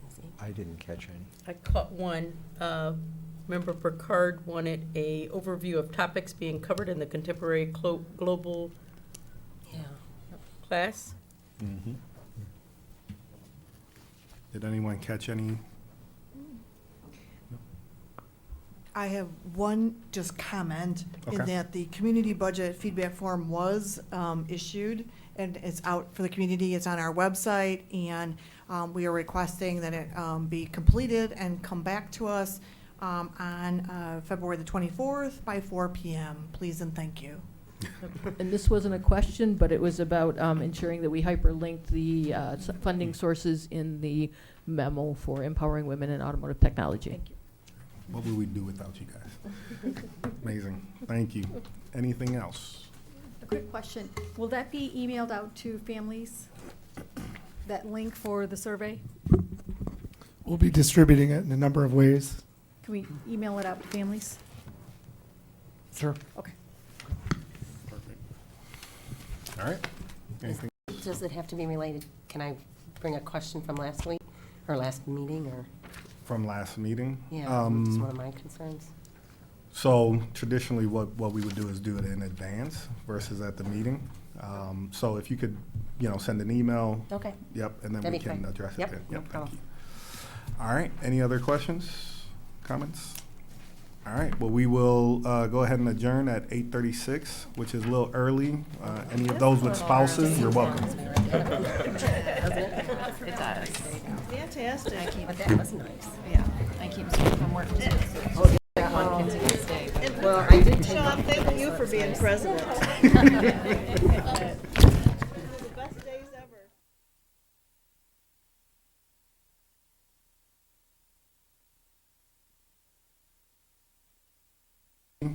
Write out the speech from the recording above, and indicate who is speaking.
Speaker 1: didn't catch any.
Speaker 2: I caught one. Uh, Member Burkard wanted a overview of topics being covered in the contemporary clo- global yeah, class.
Speaker 3: Did anyone catch any?
Speaker 4: I have one just comment in
Speaker 3: Okay.
Speaker 4: that the community budget feedback form was um, issued and it's out for the community. It's on our website and um, we are requesting that it um, be completed and come back to us um, on uh, February the 24th by 4 PM. Please and thank you.
Speaker 5: And this wasn't a question, but it was about um, ensuring that we hyperlinked the uh, s- funding sources in the memo for empowering women in automotive technology.
Speaker 3: What would we do without you guys? Amazing. Thank you. Anything else?
Speaker 6: A quick question. Will that be emailed out to families? That link for the survey?
Speaker 7: We'll be distributing it in a number of ways.
Speaker 6: Can we email it out to families?
Speaker 7: Sure.
Speaker 6: Okay.
Speaker 3: Perfect. All right. Anything?
Speaker 8: Does it have to be related? Can I bring a question from last week or last meeting or,
Speaker 3: From last meeting?
Speaker 8: yeah, it's one
Speaker 3: Um,
Speaker 8: of my concerns.
Speaker 3: So traditionally, what, what we would do is do it in advance versus at the meeting. Um, So if you could, you know, send an email,
Speaker 8: Okay.
Speaker 3: yep, and then we
Speaker 8: That'd be
Speaker 3: can
Speaker 8: great.
Speaker 3: address it
Speaker 8: Yep,
Speaker 3: then.
Speaker 8: no
Speaker 3: thank
Speaker 8: problem.
Speaker 3: you. All right, any other questions, comments? All right, well, we will uh, go ahead and adjourn at 8:36, which is a little early. Uh, Any of those with spouses, you're welcome.
Speaker 9: It does. Fantastic.
Speaker 8: But that was nice.
Speaker 9: Yeah, I keep seeing from work.
Speaker 8: Well, I did take
Speaker 9: Sean, thank you for being president.